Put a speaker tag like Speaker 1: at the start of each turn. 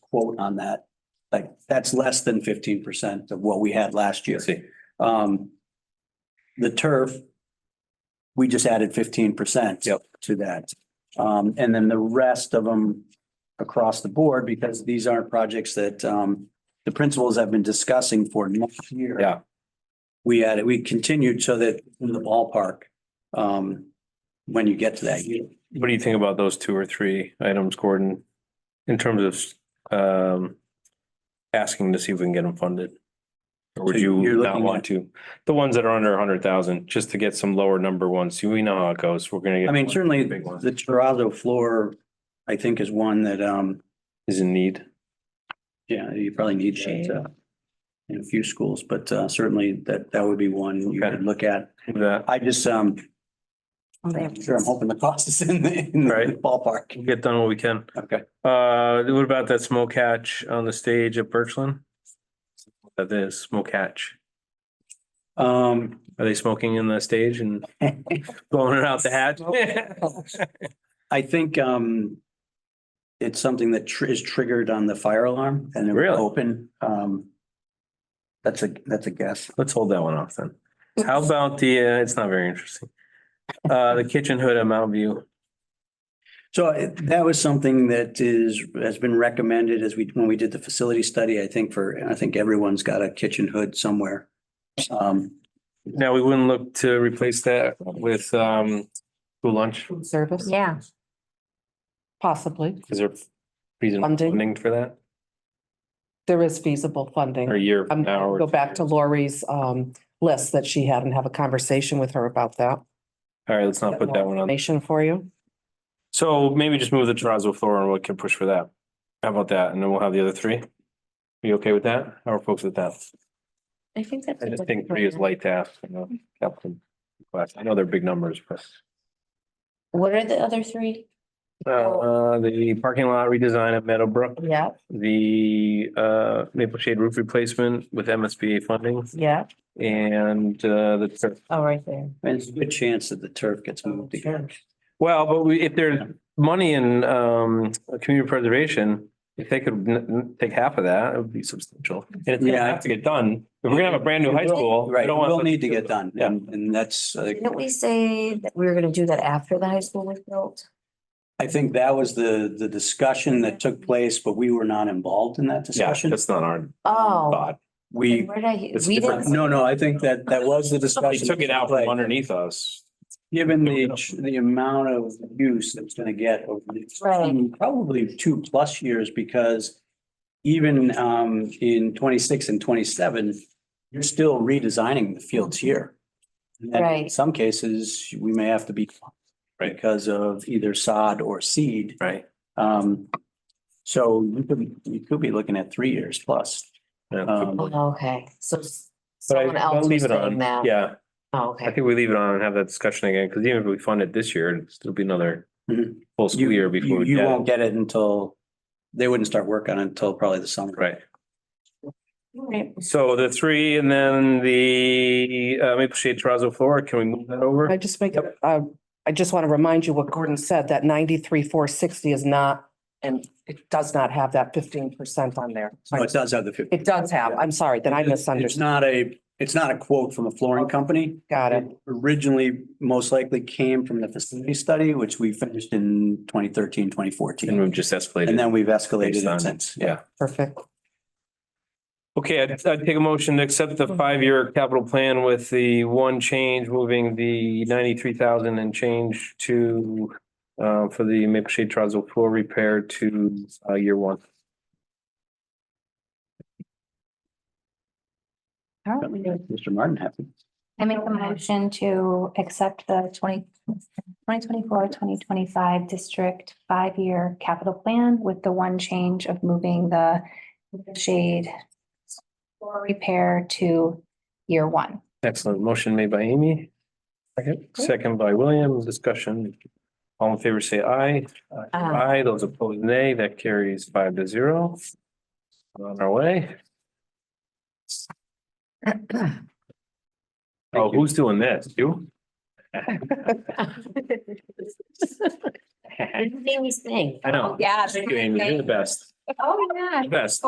Speaker 1: quote on that. Like, that's less than fifteen percent of what we had last year.
Speaker 2: See,
Speaker 1: Um, the turf, we just added fifteen percent
Speaker 2: Yep.
Speaker 1: to that. Um, and then the rest of them across the board, because these aren't projects that, um, the principals have been discussing for next year.
Speaker 2: Yeah.
Speaker 1: We added, we continued so that in the ballpark, um, when you get to that year.
Speaker 2: what do you think about those two or three items, Gordon? In terms of, um, asking to see if we can get them funded? Or would
Speaker 1: So
Speaker 2: you
Speaker 1: you're
Speaker 2: not
Speaker 1: looking
Speaker 2: want
Speaker 1: at-
Speaker 2: to? The ones that are under a hundred thousand, just to get some lower number ones. You- We know how it goes. We're gonna get.
Speaker 1: I mean,
Speaker 2: one
Speaker 1: certainly
Speaker 2: Big one
Speaker 1: the terrazzo floor, I think is one that, um,
Speaker 2: is in need.
Speaker 1: yeah, you probably need that, uh, in a few schools, but, uh, certainly that, that would be one you
Speaker 2: Okay.
Speaker 1: could look at.
Speaker 2: That,
Speaker 1: I just, um,
Speaker 3: Oh, they have-
Speaker 1: sure, I'm hoping the cost is in the, in the
Speaker 2: Right.
Speaker 1: ballpark.
Speaker 2: we'll get done what we can.
Speaker 1: Okay.
Speaker 2: Uh, what about that smoke hatch on the stage at Birchland? That is smoke hatch.
Speaker 1: Um,
Speaker 2: Are they smoking in the stage and blowing it out the hatch?
Speaker 1: I think, um, it's something that tr- is triggered on the fire alarm and it would
Speaker 2: Really?
Speaker 1: open, um, that's a, that's a guess.
Speaker 2: Let's hold that one off then. How about the, uh, it's not very interesting. Uh, the kitchen hood at Mount View.
Speaker 1: So uh, that was something that is, has been recommended as we, when we did the facility study, I think for, I think everyone's got a kitchen hood somewhere. Um,
Speaker 2: Now, we wouldn't look to replace that with, um, school lunch.
Speaker 4: Food service,
Speaker 3: Yeah,
Speaker 4: possibly.
Speaker 2: Is there reason
Speaker 4: Funding.
Speaker 2: funding for that
Speaker 4: There is feasible
Speaker 2: or
Speaker 4: funding.
Speaker 2: a year from
Speaker 4: I'm
Speaker 2: now? or
Speaker 4: Um, go back
Speaker 2: two
Speaker 4: to
Speaker 2: years?
Speaker 4: Lori's um list that she had and have a conversation with her about that.
Speaker 2: All right, let's not put that one on.
Speaker 4: Information for you.
Speaker 2: So maybe just move the terrazzo floor and we can push for that. How about that? And then we'll have the other three. Are you okay with that? How are folks with that?
Speaker 3: I think that's.
Speaker 2: I
Speaker 3: a
Speaker 2: just
Speaker 3: good
Speaker 2: think three is
Speaker 3: plan.
Speaker 2: light task, you know, captain. class. I know they're big numbers, but
Speaker 3: What are the other three? Oh.
Speaker 2: uh, the parking lot redesign at Meadowbrook,
Speaker 3: Yeah,
Speaker 2: the uh Maple Shade roof replacement with MSBA funding
Speaker 3: yeah,
Speaker 2: and uh the turf.
Speaker 3: oh, right there.
Speaker 1: and it's a good chance that the turf gets moved again.
Speaker 2: Well, but we, if there's money in um community preservation, if they could n- n- take half of that, it would be substantial. And it's gonna
Speaker 1: Yeah.
Speaker 2: have to get done. If we're gonna have a brand new high school. we
Speaker 1: Right,
Speaker 2: don't want
Speaker 1: will
Speaker 2: them
Speaker 1: need to
Speaker 2: do
Speaker 1: get
Speaker 2: it.
Speaker 1: done.
Speaker 2: Yeah.
Speaker 1: And, and that's, uh,
Speaker 3: Didn't we say that we were gonna do that after the high school was built?
Speaker 1: I think that was the, the discussion that took place, but we were not involved in that
Speaker 2: Yeah,
Speaker 1: discussion.
Speaker 2: that's not our
Speaker 3: Oh.
Speaker 2: thought.
Speaker 1: We,
Speaker 3: Where did I,
Speaker 2: It's
Speaker 3: we
Speaker 2: different.
Speaker 3: didn't,
Speaker 1: no, no, I think that, that was the
Speaker 2: They
Speaker 1: discussion.
Speaker 2: took it out from underneath us.
Speaker 1: Given the, the amount of use that's gonna get over the next
Speaker 3: Right.
Speaker 1: two- probably two plus years, because even, um, in twenty-six and twenty-seven, you're still redesigning the fields here. And In
Speaker 3: Right.
Speaker 1: some cases, we may have to be
Speaker 2: Right.
Speaker 1: because of either sod or seed.
Speaker 2: Right.
Speaker 1: Um, so you could, you could be looking at three years plus. Um,
Speaker 3: Oh, okay, so s-
Speaker 2: But I-
Speaker 3: someone
Speaker 2: I'll
Speaker 3: else was
Speaker 2: leave it
Speaker 3: saying
Speaker 2: on.
Speaker 3: that.
Speaker 2: Yeah,
Speaker 3: Oh,
Speaker 2: I
Speaker 3: okay.
Speaker 2: think we leave it on and have that discussion again, because even if we fund it this year, it'll still be another
Speaker 1: Mhm.
Speaker 2: full
Speaker 1: you-
Speaker 2: school year before.
Speaker 1: you-
Speaker 2: we
Speaker 1: You
Speaker 2: get it.
Speaker 1: won't get it until, they wouldn't start work on it until probably the summer.
Speaker 2: Right.
Speaker 3: Right.
Speaker 2: So the three and then the uh, Maple Shade terrazzo floor, can we move that over?
Speaker 4: I just make, it, uh, I just want to remind you what Gordon said, that ninety-three, four sixty is not, and it does not have that fifteen percent on there.
Speaker 1: So it does have the fifty.
Speaker 4: It does have, I'm sorry, then I
Speaker 1: It's
Speaker 4: misunderstood.
Speaker 1: not a, it's not a quote from a flooring company.
Speaker 4: Got it.
Speaker 1: Originally, most likely came from the facility study, which we finished in 2013, 2014,
Speaker 2: And we've just escalated.
Speaker 1: And then we've escalated
Speaker 2: Based on-
Speaker 1: it since.
Speaker 2: Yeah.
Speaker 4: Perfect.
Speaker 2: Okay, I'd, I'd take a motion to accept the five-year capital plan with the one change, moving the ninety-three thousand and change to uh, for the Maple Shade terrazzo floor repair to uh, year one.
Speaker 1: Mr. Martin, happy.
Speaker 5: I make a motion to accept the 20 2024-2025 district five-year capital plan with the one change of moving the shade for repair to year one.
Speaker 2: Excellent. Motion made by Amy. Second, second by William. Discussion. All in favor, say aye. Aye. Those opposed, nay. That carries five to zero. We're On our way. Oh, who's doing this? You?
Speaker 3: Anything we sing.
Speaker 2: I know.
Speaker 3: Yeah.
Speaker 2: Thank you, Amy. You're the best.
Speaker 6: Oh, yeah.
Speaker 5: Best.